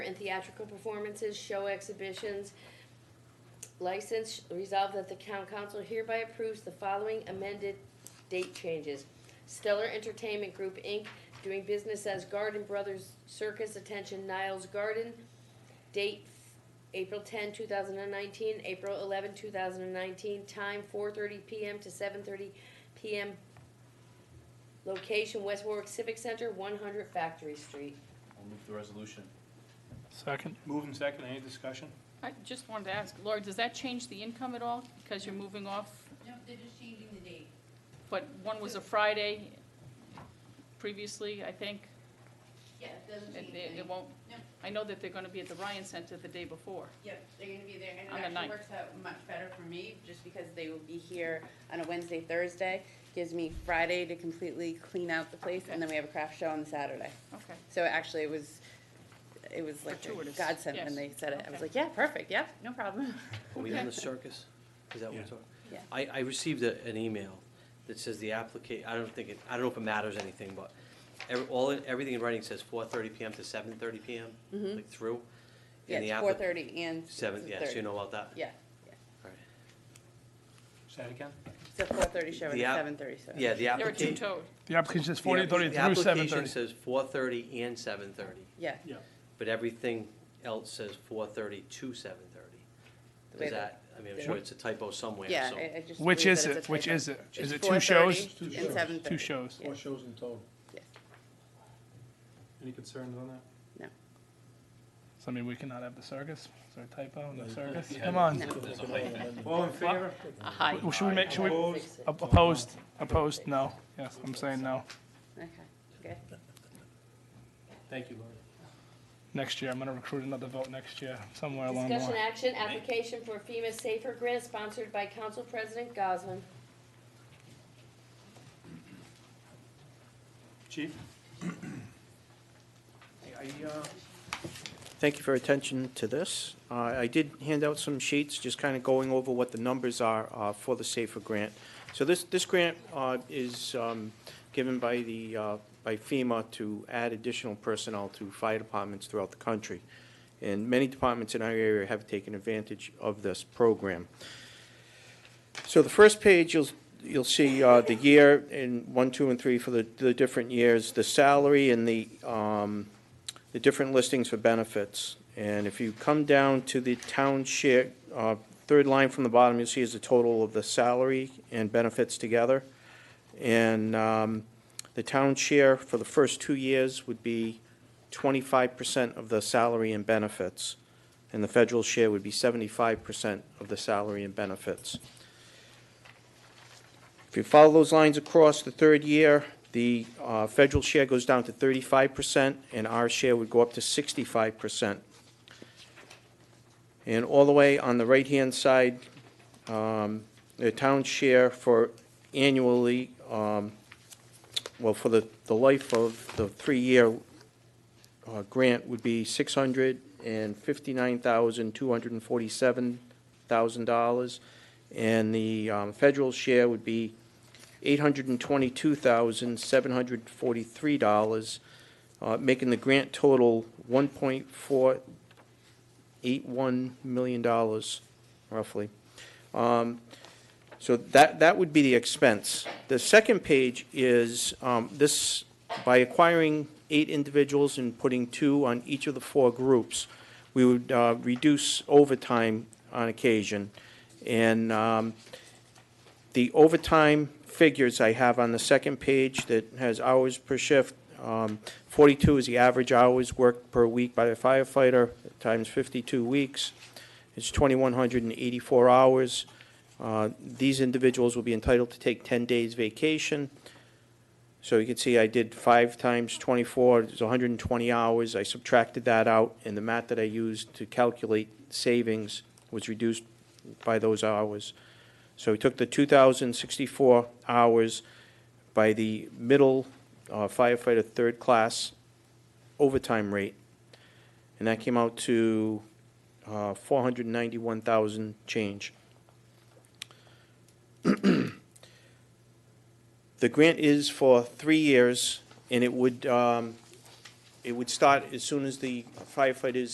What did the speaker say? and theatrical performances, show exhibitions, license, resolve that the town council hereby approves the following amended date changes. Stellar Entertainment Group, Inc., doing business as Garden Brothers Circus, attention Niles Garden, date April 10, 2019, April 11, 2019, time 4:30 PM to 7:30 PM. Location, West Warwick Civic Center, 100 Factory Street. I'll move the resolution. Second. Move and second, any discussion? I just wanted to ask, Laura, does that change the income at all? Because you're moving off, No, they're just changing the date. but one was a Friday previously, I think. Yeah, it doesn't and change they- It anything. won't, No. I know that they're gonna be at the Ryan Center the day before. Yep, they're gonna be there, and On the it actually ninth. works out much better for me, just because they will be here on a Wednesday, Thursday. Gives me Friday to completely clean out the place, and then we have a craft show on the Saturday. Okay, So actually, it was, it was like a Fortuitous, godsend when yes. they said it. I was Okay. like, yeah, perfect, yep, no problem. Are we on the circus? Is that what we're Yeah. talking? Yeah. I, I received a, an email that says the applica, I don't think, it I don't know if it matters anything, but every, all, in- everything in writing says four thirty PM to seven thirty PM, like through. Mm-hmm. Yeah, and the it's appli- four thirty and it's Seven, yeah, so you 6:30. know about that? Yeah, yeah. All right. Say it again? It's a four thirty show and The app- seven thirty, so. Yeah, the they're a application. two-toed. The application says forty thirty through The seven application thirty. says four thirty and seven thirty, Yeah, Yeah. but everything else says four thirty to seven thirty. Wait, Is that, I mean, I'm wait. sure it's a typo somewhere, so. yeah, I, I just. Which believe is that it? it's a Which typo. is it? It's Is it two shows? 4:30 Two and shows. 7:30. Two shows. Yeah. Four shows in total. Any concerns on that? So I mean, we cannot have the circus? Is there a typo in the circus? Yeah. Come on. No. There's a whole amendment. All in favor? A high. Well, Should we make, should we, Opposed? Fix it. op- opposed, opposed, no. Yes, I'm saying no. Okay, good. Thank you, Laura. Next year, I'm gonna recruit another vote next year, somewhere along the Discussion line. action, application for FEMA Safer Grant sponsored by Council President Goslin. Chief? Thank you for your attention to this. Uh, I did hand out some sheets, just kind of going over what the numbers are uh, for the SAFER grant. So this, this grant uh, is um, given by the, uh, by FEMA to add additional personnel to fire departments throughout the country. And many departments in our area have taken advantage of this program. So the first page, you'll, you'll see uh, the year in one, two, and three for the, the different years, the salary and the, um, the different listings for benefits. And if you come down to the town share, uh, third line from the bottom, you'll see is the total of the salary and benefits together. And um, the town share for the first two years would be twenty-five percent of the salary and benefits. And the federal share would be seventy-five percent of the salary and benefits. If you follow those lines across the third year, the uh, federal share goes down to thirty-five percent, and our share would go up to sixty-five percent. And all the way on the right-hand side, um, the town share for annually, um, well, for the, the life of the three-year uh, grant would be six hundred and fifty-nine thousand, two hundred and forty-seven thousand dollars. And the um, federal share would be $822,743, uh, making the grant total $1.481 million, roughly. Um, So that, that would be the expense. The second page is um, this, by acquiring eight individuals and putting two on each of the four groups, we would uh, reduce overtime on occasion. And um, the overtime figures I have on the second page that has hours per shift, um, 42 is the average hours worked per week by the firefighter, times 52 weeks, it's 2,184 hours. Uh, These individuals will be entitled to take 10 days vacation. So you can see I did five times 24, it's 120 hours. I subtracted that out, and the math that I used to calculate savings was reduced by those hours. So we took the 2,064 hours by the middle uh, firefighter third class overtime rate, and that came out to uh, 491,000 change. The grant is for three years, and it would, um, it would start as soon as the firefighters